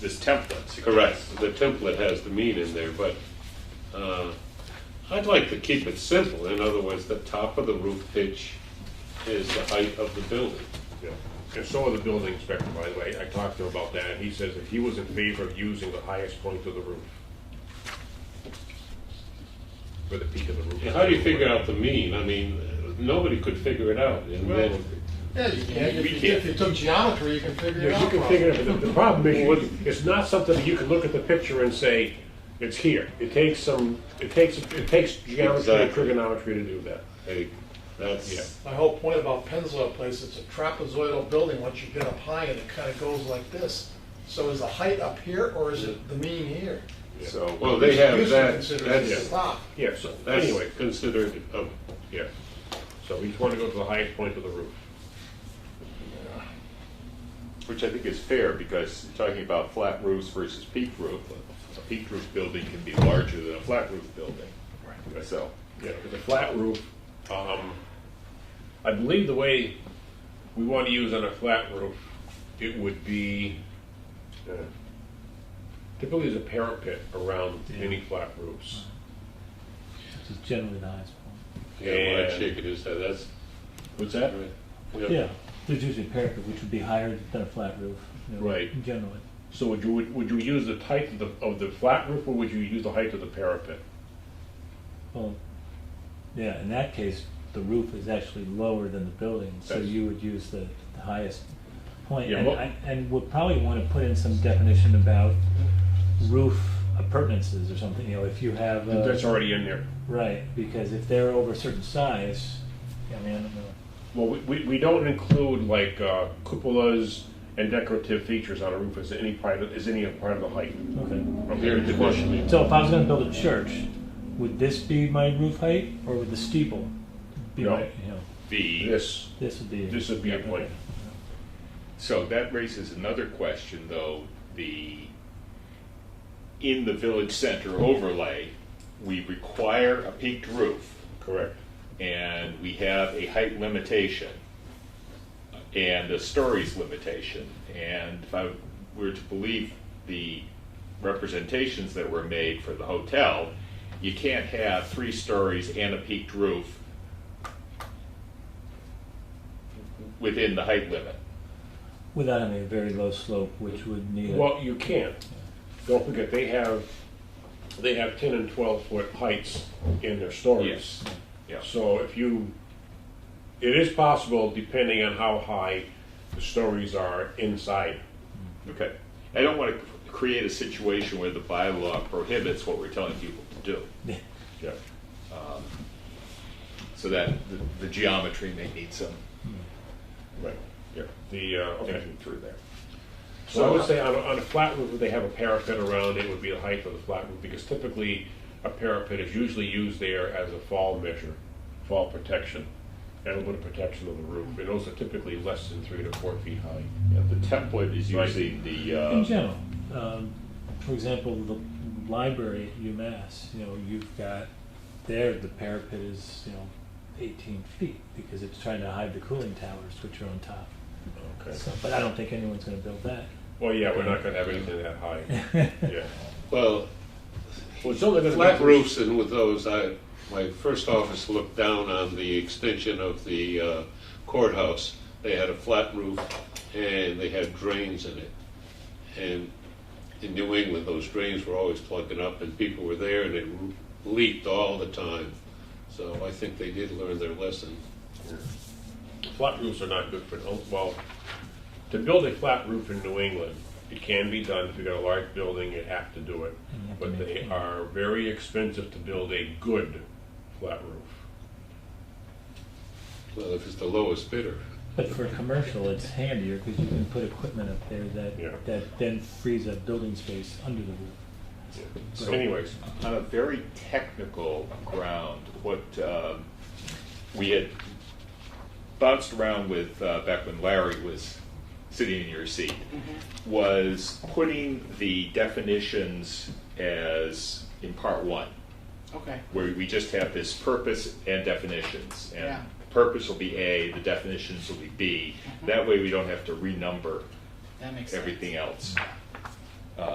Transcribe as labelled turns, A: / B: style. A: this template.
B: Correct, the template has the mean in there, but uh, I'd like to keep it simple. In other words, the top of the roof pitch is the height of the building.
A: Yeah. And so are the building inspector, by the way. I talked to him about that, and he says that he was in favor of using the highest point of the roof. For the peak of the roof.
B: And How do you figure out the mean? I mean, nobody could figure it out. And
A: Well,
B: then,
C: Yeah, you can, if
A: We
C: you,
A: can't.
C: if you took geometry, you can figure it
A: Yeah,
C: out.
A: you can
C: probably.
A: figure it out. The the problem is, you- it's not something that you can look at the picture and say, it's here. It takes some, it takes, it takes geometry and
B: Exactly.
A: trigonometry to do that.
B: hey,
A: Yeah.
B: that's,
C: My whole point about Pennzoil Place, it's a trapezoidal building, once you get up high and it kind of goes like this. So is the height up here or is it the mean here?
A: So,
B: well, they have
C: Usually
B: that,
C: considered the
B: that's,
C: top.
A: yeah, so, anyway,
B: that's considered, um,
A: yeah. So we just want to go to the highest point of the roof.
D: Which I think is fair, because talking about flat roofs versus peaked roof, a peaked roof building can be larger than a flat roof building. So,
A: Yeah, with a flat roof, um, I believe the way we want to use on a flat roof, it would be, uh, typically there's a parapet around any flat roofs.
E: Which is generally the highest point.
B: yeah, what
A: And-
B: I'm shaking is that, that's,
A: What's that?
E: Yeah, there's usually a parapet, which would be higher than a flat roof. you know,
A: Right.
E: Generally.
A: So would you, would you use the height of the, of the flat roof, or would you use the height of the parapet?
E: Well, yeah, in that case, the roof is actually lower than the building, so
A: That's-
E: you would use the the highest point.
A: Yeah,
E: And
A: well-
E: I- And we'll probably want to put in some definition about roof appurtenances or something, you know, if you have. uh,
A: That's already in there.
E: Right, because if they're over a certain size, I mean, I don't know.
A: Well, we- we, we don't include like uh, cupolas and decorative features on a roof as any part of, as any part of the height.
E: Okay.
A: from
B: air
A: the conditioning.
B: conditioning.
E: So if I was gonna build a church, would this be my roof height, or would the steeple be
A: No.
E: my, you know?
D: the,
A: This,
E: This would be.
A: this would be a point.
D: so that raises another question, though, the, in the village center overlay, we require a peaked roof,
A: Correct.
D: and we have a height limitation, and a stories limitation, and if I were to believe the representations that were made for the hotel, you can't have three stories and a peaked roof within the height limit.
E: Without having a very low slope, which would need. a-
A: Well, you can. Don't forget, they have, they have ten and twelve foot heights in their stories.
D: Yes. Yeah.
A: So if you, it is possible, depending on how high the stories are inside.
D: Okay. I don't want to create a situation where the bylaw prohibits what we're telling people to do.
A: Yeah.
D: So that the- the geometry may need some
A: Right. Yeah. The, uh, okay.
D: thinking through there.
A: So I would say on a, on a flat roof, if they have a parapet around, it would be the height of the flat roof, because typically a parapet is usually used there as a fall measure, fall protection, and a little bit of protection of the roof, and those are typically less than three to four feet high.
D: Yeah, The template is
A: Right.
D: usually the,
E: In
D: uh,
E: general, um, for example, the library at UMass, you know, you've got there the parapet is you know 18 feet because it's trying to hide the cooling towers which are on top.
A: Okay.
E: So, but I don't think anyone's going to build that.
A: Well, yeah, we're not gonna have anything that high. Yeah.
B: well,
A: Well, it's only gonna be-
B: Flat roofs and with those, I, my first office looked down on the extension of the uh, courthouse. They had a flat roof and they had drains in it. And in New England, those drains were always plugging up and people were there and it leaked all the time. So I think they did learn their lesson.
A: Flat roofs are not good for, oh, well, to build a flat roof in New England, it can be done, if you've got a large building, you have to do it.
E: And you have to
A: But
E: make
A: they
E: it-
A: are very expensive to build a good flat roof.
B: Well, if it's the lowest bidder.
E: But for commercial, it's handier because you can put equipment up there that
A: Yeah.
E: that then frees up building space under the roof.
A: So anyways,
D: on a very technical ground, what um, we had bounced around with uh, back when Larry was sitting in your seat
F: Mm-hmm.
D: was putting the definitions as in part one,
F: Okay,
D: where we just have this purpose and definitions. And
F: Yeah.
D: purpose will be A, the
F: Mm-hmm.
D: definitions will be B. That way we don't have to renumber
F: that makes sense.
D: everything else.